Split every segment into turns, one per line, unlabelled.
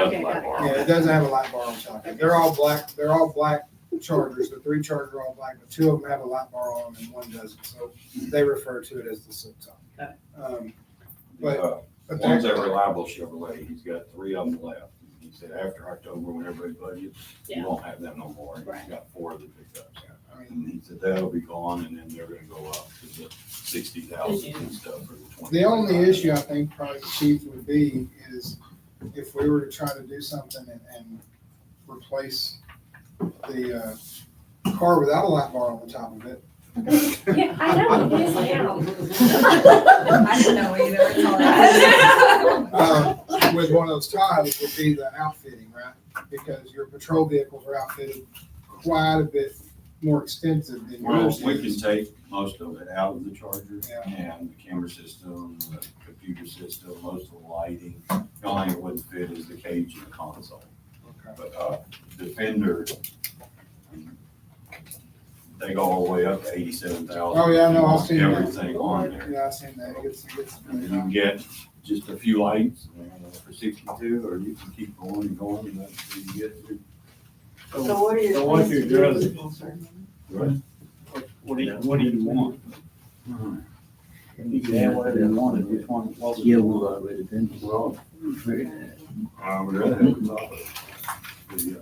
light bar.
Yeah, it doesn't have a light bar on top. of it. They're all black, they're all black chargers. The three chargers are all black, but two of them have a light bar on them and one doesn't. So they refer to it as the silk top.
Okay.
Um, But-
Uh,
but
One's
that-
a reliable Chevrolet, he's got three of them left. He said after October, when everybody budgets, you
Yeah.
won't have them no more. And He's
Right.
got four of the pickups.
I mean,
And he said that'll be gone and then they're gonna go up to the sixty thousand and stuff for the twenty.
The only issue I think probably the chief would be is if we were to try to do something and, and replace the, uh, car without a light bar on the top of it.
Yeah, I know, it is now.
I don't know either. It's all right.
Uh, With one of those ties would be the outfitting, right? Because your patrol vehicles are outfitted quite a bit more extensive than
Well,
yours
we can
is.
take most of it out of the charger
Yeah.
and the camera system, the computer system, most of the lighting. The only thing that wouldn't fit is the cage and the console.
Okay.
But, uh, Defender, they go all the way up to eighty-seven thousand.
Oh, yeah, no, I've seen that.
Everything on there.
Yeah, I've seen that. It gets, it gets.
And then you can get just a few lights uh, for sixty-two, or you can keep going and going, and that's where you get to.
So what are your
So what
plans
you
to
do
do
is-
with this, sir?
What do you, what do you want? You can have whatever you want, which one, what was
Yeah, well, I read it then. Well,
I would rather have a top of it. Yeah.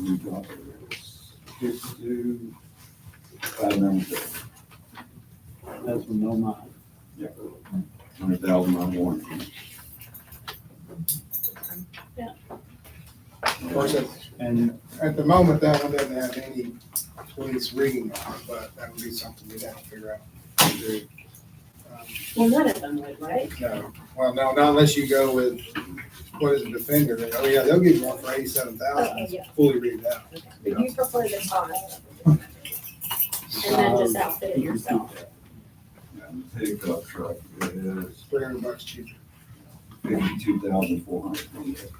New top of it. Sixty-two. Five numbers.
that's from no mind.
Yeah. Hundred thousand on warranty.
Yeah.
Of course, at,
And
at the moment, that one doesn't have any police reading on it, but that would be something we'd have to figure out. to do. Um,
Well, none of them would, right?
No, well, no, not unless you go with, what is a Defender, oh yeah, they'll give you one for eighty-seven
Okay,
thousand,
yeah,
fully read out.
but you prefer the car. And then just outfit it yourself.
And the Pickup truck is
Three hundred bucks cheaper.
fifty-two thousand four hundred.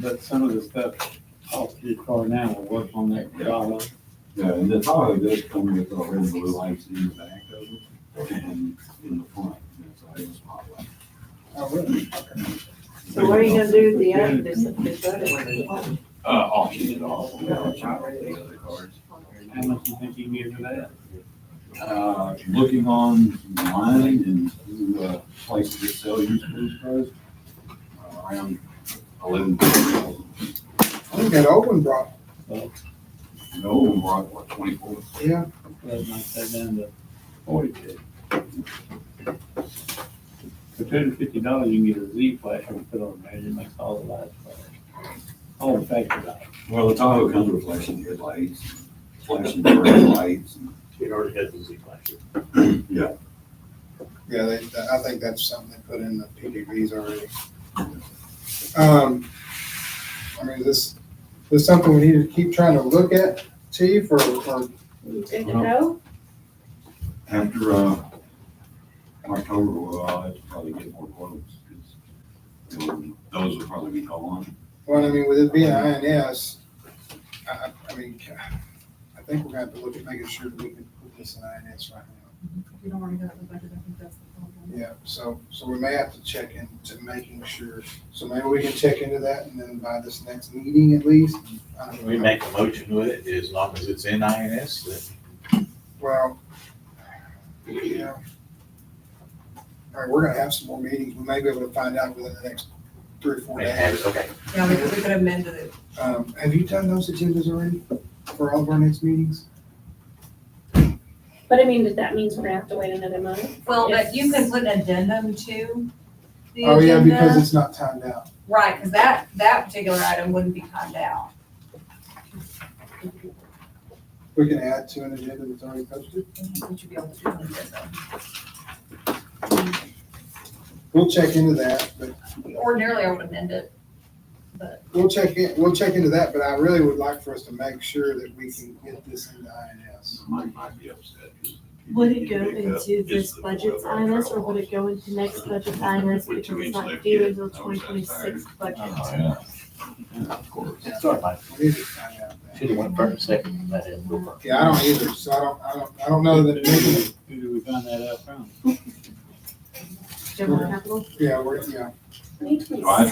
But some of the stuff off your car now will work on that dollar.
Yeah, and the Tahoe does come with the red and blue lights in the back of it and in the front. That's why it's spotlight.
Oh, really? Okay.
So what are you gonna do with the, other- this, this other one?
Uh, auction it off. you know, try to get the other cars.
How much you think you can get for that?
Uh, looking online and through, uh, places that sell used police cars, uh, around eleven thousand.
I think that Oakland brought,
No, we're at what, twenty-four?
yeah,
That might take down to
Forty.
for two hundred fifty dollars, you can get a Z flash and put on there, it makes all the lights flash. All the factory lights.
Well, the Tahoe comes with flashing headlights, flashing brake lights. and-
It already has a Z flash.
Yeah.
yeah, they, that- I think that's something they put in the PDVs already. Um, I mean, this, this something we need to keep trying to look at, chief, or, or,
You good to go?
After, uh, October, well, I'd probably get more quotes. 'cause, you know, Those would probably be gone.
well, I mean, with it being INS, I, I, I mean, I think we're gonna have to look at making sure that we can put this in INS right now.
You don't already got the budget, I think that's the problem.
Yeah, so, so we may have to check into making sure, so maybe we can check into that and then by this next meeting at least. I don't
We
know.
make a motion with it, as long as it's in INS, then
Well, yeah. All right, we're gonna have some more meetings, we may be able to find out within the next three or four
they have
days.
it, okay.
Yeah, because we could amend it.
Um, have you done those agendas already for all of our next meetings?
But I mean, that- that means we're gonna have to wait another month.
Well, but you can put an addendum to the
Oh, yeah, because
agenda.
it's not timed out.
Right, because that, that particular item wouldn't be timed out.
We can add to an agenda that's already posted.
Would you be able to do that?
We'll check into that, but
Ordinarily, I would amend it, but
We'll check in, we'll check into that, but I really would like for us to make sure that we can get this into INS.
Mike might be upset. 'cause he
Would it
didn't
go
pick up
into this
just the
budget's
oil and
INS or
travel
would it go into next budget's INS
With
because
two
it's
inch
not
left
due
yet.
until
I was
twenty twenty-six budget?
Oh, yeah. Yeah, Of course.
Sorry, Mike.
We need to find out that.
Should have went first, second, let it go first.
Yeah, I don't either, so I don't, I don't, I don't know that, we can-
Who do we find that out from?
General capital?
yeah, we're, yeah.
Twenty twenty-six.
I